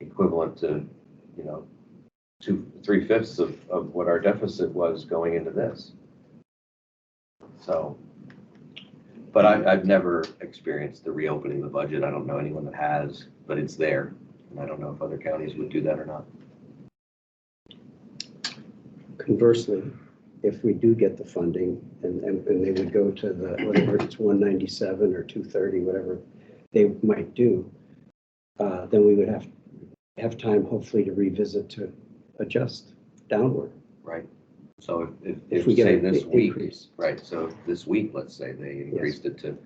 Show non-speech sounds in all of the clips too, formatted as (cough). equivalent to, you know, two, three fifths of, of what our deficit was going into this. So, but I, I've never experienced the reopening of the budget. I don't know anyone that has, but it's there. And I don't know if other counties would do that or not. Conversely, if we do get the funding and, and and they would go to the, whatever it's one ninety-seven or two thirty, whatever they might do, uh, then we would have, have time hopefully to revisit to adjust downward. So if, If if, we if get say an this i- week, increase. right, so if this week, let's say they increased it to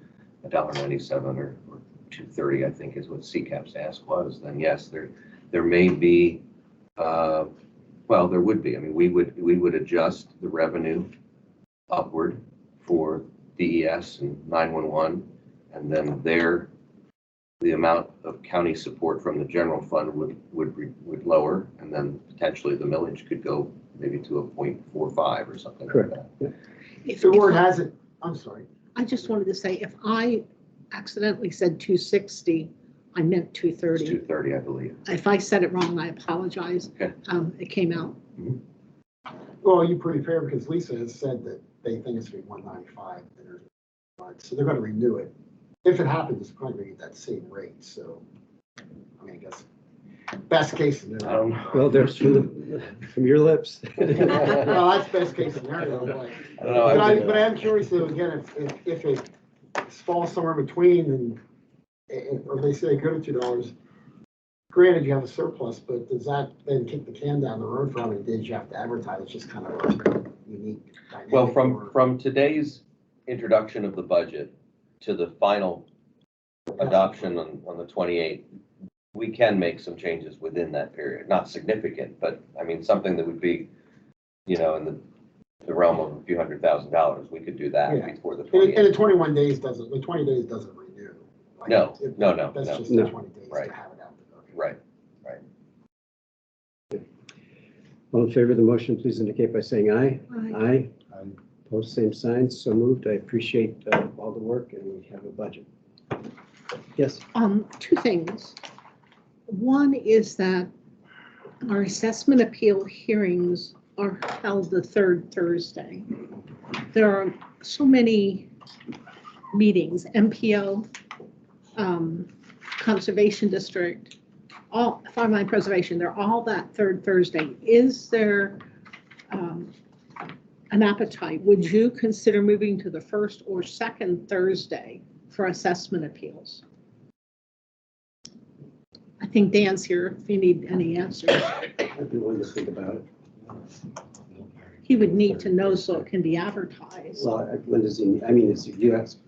a dollar ninety-seven or, or two thirty, I think is what CCAP's ask was, then yes, there, there may be, uh, well, there would be, I mean, we would, we would adjust the revenue upward for DES and nine-one-one, and then their, the amount of county support from the general fund would, would, re- would lower, and then potentially the millage could go maybe to a point four five or something like Correct. that. If, The word if- has it, I'm sorry. I just wanted to say, if I accidentally said two sixty, I meant two It's thirty. two thirty, I believe. If I said it wrong, I apologize. Okay. Um, it came out. Well, you're pretty fair because Lisa has said that they think it's gonna be one ninety-five. So they're gonna renew it. If it happens, it's probably gonna get that same rate, so. I mean, I guess, best case I scenario. don't know. Well, there's from, the- from (laughs) your lips. Um, (laughs) Well, that's best case scenario, but. I don't know, But I, I've but been- I'm curious though, again, if, if, if it falls somewhere between and, and- or they say go to two dollars, granted you have a surplus, but does that then kick the can down the road for how many days you have to advertise? It's just kind of a unique dynamic. Well, from, or- from today's introduction of the budget to the final adoption on, on the twenty-eighth, we can make some changes within that period, not significant, but I mean, something that would be, you know, in the, the realm of a few hundred thousand dollars, we could do that Yeah. before the And, it- and twenty-eighth. the twenty-one days doesn't, the twenty days doesn't renew. Like, No, it- no, no, That's no. just the No. twenty days Right. to have it out. there. Right. All in favor of the motion, please indicate by saying aye. Right. Aye. Post same signs, so moved. I appreciate uh, all the work and we have a budget. Yes, Um, two things. One is that our assessment appeal hearings are held the third Thursday. There are so many meetings, MPO, um, Conservation District, all, Farmland Preservation, they're all that third Thursday. Is there um, an appetite? Would you consider moving to the first or second Thursday for assessment appeals? I think Dan's here if you need any answers. I'd be willing to think about it. He would need to know so it can be advertised. Well, I- when does he, I mean, is, you ask,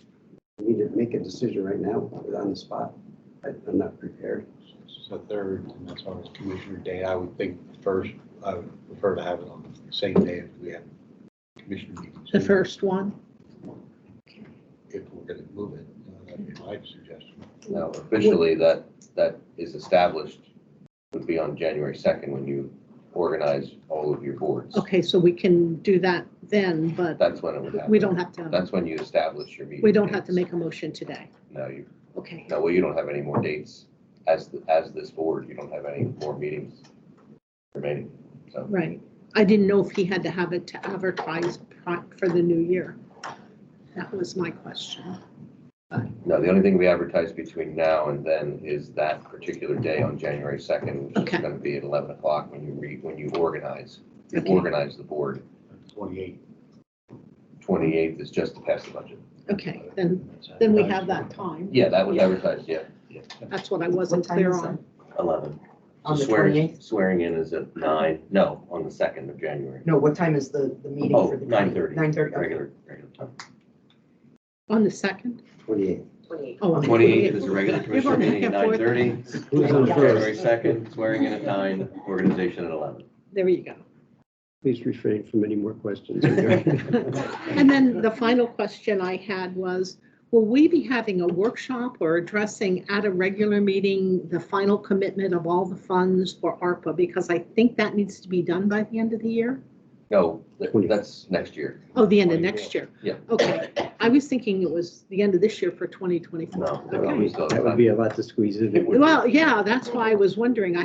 you need to make a decision right now on the spot. I- I'm not prepared. So third, and that's why it's Commissioner Day. I would think first, I would prefer to have it on the same day as we have Commissioner meetings. The first one, If we're going to move it, uh, that'd be my suggestion. Now, officially, that, that is established would be on January second when you organize all of your boards. okay, so we can do that then, but That's when it would happen. we don't have to, That's when you establish your meeting. we don't have to dates. make a motion today. No, you, Okay, no, well, you don't have any more dates as, the- as this board, you don't have any more meetings remaining. So, right. I didn't know if he had to have it to advertise pri- for the new year. That was my question. no, the only thing we advertise between now and then is that particular day on January second, which is Okay. gonna be at eleven o'clock when you re, when you organize. You Okay. organize the board, Twenty-eight. twenty-eighth is just to pass the budget. Okay, then, then we have that time. Yeah, that was advertised, yeah, That's what I wasn't What time clear is on. eleven. On the Swearing, 28th? swearing in is at nine, no, on the second of January. No, what time is the, the meeting Oh, for the? 9:30. Nine thirty, okay. Regular, regular time. On the second? Twenty-eight. Oh, on the Twenty-eighth is a 28th. regular You're commissioner going back meeting at and nine forth. thirty. Who's on Yeah. first? January second, swearing in at nine, organization at eleven. There you go. Please refrain from any more questions. (laughs) And then the final question I had was, will we be having a workshop or addressing at a regular meeting the final commitment of all the funds for ARPA? Because I think that needs to be done by the end of the year. No, that- Twenty. that's next year. Oh, the end of next year. Yeah. Okay. I was thinking it was the end of this year for 2024. No, Okay. we still have That time. would be a lot to squeeze in. (laughs) It would. Well, yeah, that's why I was wondering. I